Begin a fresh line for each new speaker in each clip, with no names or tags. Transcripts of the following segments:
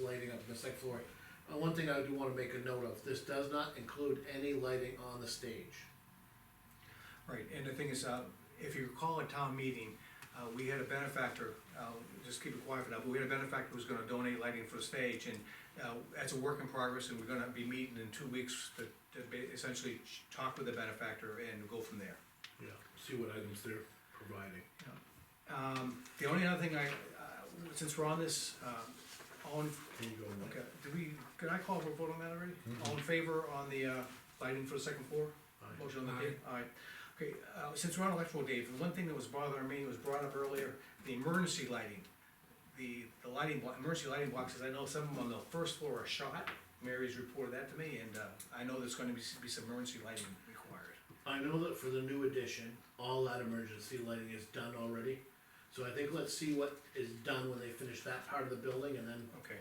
lighting up the second floor. Uh, one thing I do wanna make a note of, this does not include any lighting on the stage.
Right, and the thing is, uh, if you recall at town meeting, uh, we had a benefactor, uh, just keep it quiet for now, but we had a benefactor who was gonna donate lighting for the stage, and, uh, that's a work in progress, and we're gonna be meeting in two weeks to, to ba- essentially ch- talk with the benefactor and go from there.
Yeah. See what items they're providing.
Um, the only other thing I, uh, since we're on this, uh, all in,
Can you go in
okay, do we, could I call for a vote on that already? All in favor on the, uh, lighting for the second floor?
there?
Motion on the table, aye. Okay, uh, since we're on electrical, Dave, the one thing that was bothering me was brought up earlier, the emergency lighting. The, the lighting, bo- emergency lighting boxes, I know some of them on the first floor are shot, Mary's reported that to me, and, uh, I know there's gonna be, s- be some emergency lighting required.
I know that for the new addition, all that emergency lighting is done already. So I think let's see what is done when they finish that part of the building and then,
Okay.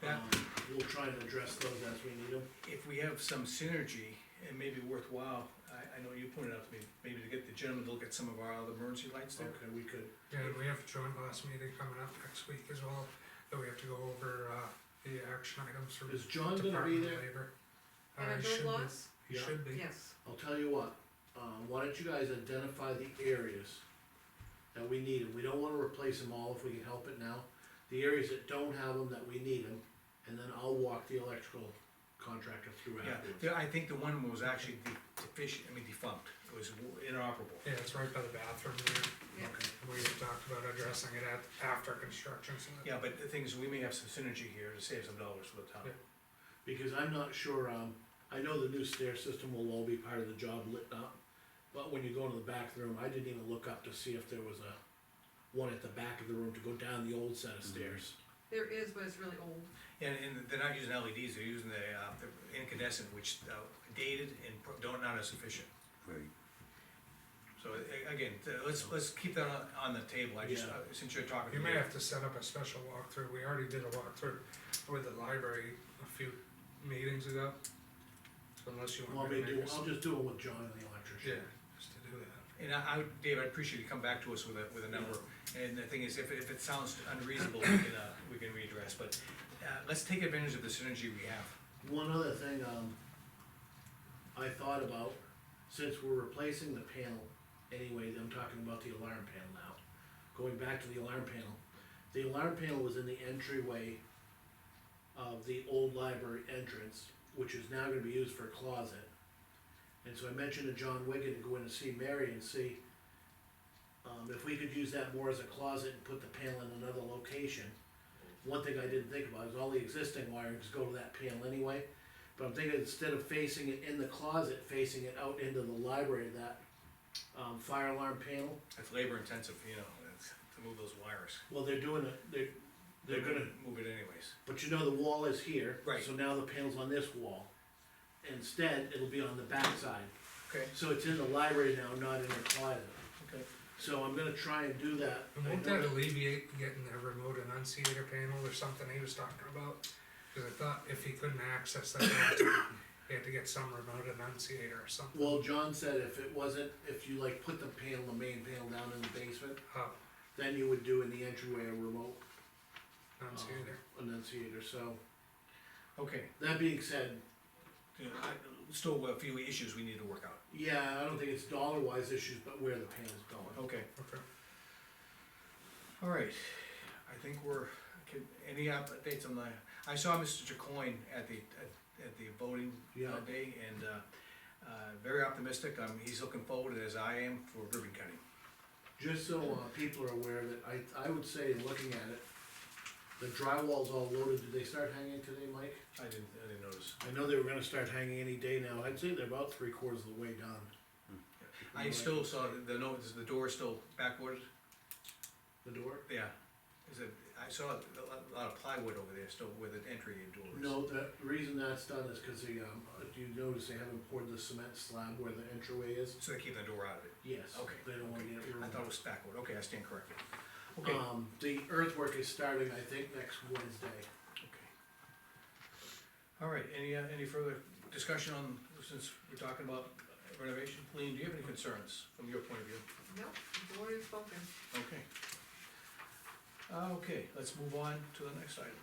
That,
um, we'll try and address those as we need them.
if we have some synergy, it may be worthwhile, I, I know you pointed out to me, maybe to get the gentleman to look at some of our other emergency lights there.
Okay, we could,
Yeah, and we have a joint last meeting coming up next week as well, that we have to go over, uh, the action items for
is John gonna be
Department of
there?
Labor.
And
Uh,
a
he
good
should be.
loss,
He
Yeah.
should be.
yes,
I'll tell you what, um, why don't you guys identify the areas that we need them, we don't wanna replace them all if we can help it now. The areas that don't have them, that we need them, and then I'll walk the electrical contractor through
Yeah,
afterwards.
there- I think the one was actually de- deficient, I mean defunct, it was inoperable.
Yeah, it's right by the bathroom there,
yeah.
Okay,
we had talked about addressing it at, after construction, so that-
Yeah, but the thing is, we may have some synergy here to save some dollars for the town.
Yeah.
because I'm not sure, um, I know the new stair system will all be part of the job lit up, but when you go into the back of the room, I didn't even look up to see if there was a one at the back of the room to go down the old set of stairs.
There is, but it's really old.
And, and they're not using LEDs, they're using the, uh, the incandescent, which uh, dated and pro- don't, not as efficient.
Right.
So, a- again, th- let's, let's keep that on, on the table, I just,
Yeah.
uh, since you're talking.
You
to
may
me.
have to set up a special walkthrough, we already did a walkthrough with the library a few meetings ago. So Unless you
Want
want
me
me
to
to
do,
make us,
I'll just do it with John and the
yeah,
electrician.
just to do that.
And I, I, Dave, I'd appreciate you come back to us with a, with a number, and the thing is, if, it- if it sounds unreasonable, we can, uh, we can readdress, but, uh, let's take advantage of the synergy we have.
One other thing, um, I thought about, since we're replacing the panel, anyway, I'm talking about the alarm panel now. Going back to the alarm panel, the alarm panel was in the entryway of the old library entrance, which is now gonna be used for a closet. And so I mentioned to John Wigan to go in and see Mary and see, um, if we could use that more as a closet and put the panel in another location. One thing I didn't think about is all the existing wirings go to that panel anyway. But I'm thinking instead of facing it in the closet, facing it out into the library, that um, fire alarm panel.
It's labor intensive, you know, it's, to move those wires.
Well, they're doing it. They're they're gonna.
Move it anyways.
But you know the wall is here.
Right.
So now the panel's on this wall. Instead, it'll be on the backside.
Okay,
So it's in the library now, not in the closet.
okay.
So I'm gonna try and do that.
And
I
won't
know-
that alleviate getting a remote enunciator panel or something he was talking about? Cause I thought if he couldn't access that, he had to get some remote enunciator or something.
Well, John said if it wasn't, if you like put the panel, the main panel down in the basement,
Oh,
then you would do in the entryway a remote
enunciator.
um, enunciator, so,
Okay,
that being said,
Yeah, I- still a few issues we need to work out.
yeah, I don't think it's dollar wise issues, but where the panel's going.
Okay,
Okay.
all right. I think we're, can- any updates on the, I saw Mr. Jacoin at the, at- at the voting
Yeah.
that day, and, uh, uh, very optimistic, um, he's looking forward as I am for ribbon cutting.
Just so, uh, people are aware that I, I would say, looking at it, the drywall's all loaded, did they start hanging today, Mike?
I didn't, I didn't notice.
I know they were gonna start hanging any day now, I'd say they're about three quarters of the way done.
I still saw the- the note, is the door still backward?
The door?
Yeah. Is it, I saw a lot of plywood over there still where the entry door is.
No, the reason that's done is cause they, um, if you notice they haven't poured the cement slab where the entryway is?
So they keep the door out of it.
Yes.
Okay,
They don't wanna
okay.
get
I
ruined.
thought it was backward, okay, I stand corrected. Okay, okay.
Um, the earthwork is starting, I think, next Wednesday.
All right, any, uh, any further discussion on, since we're talking about renovation, Lean, do you have any concerns from your point of view?
Nope, the board is spoken.
Okay. Uh, Okay, let's move on to the next item.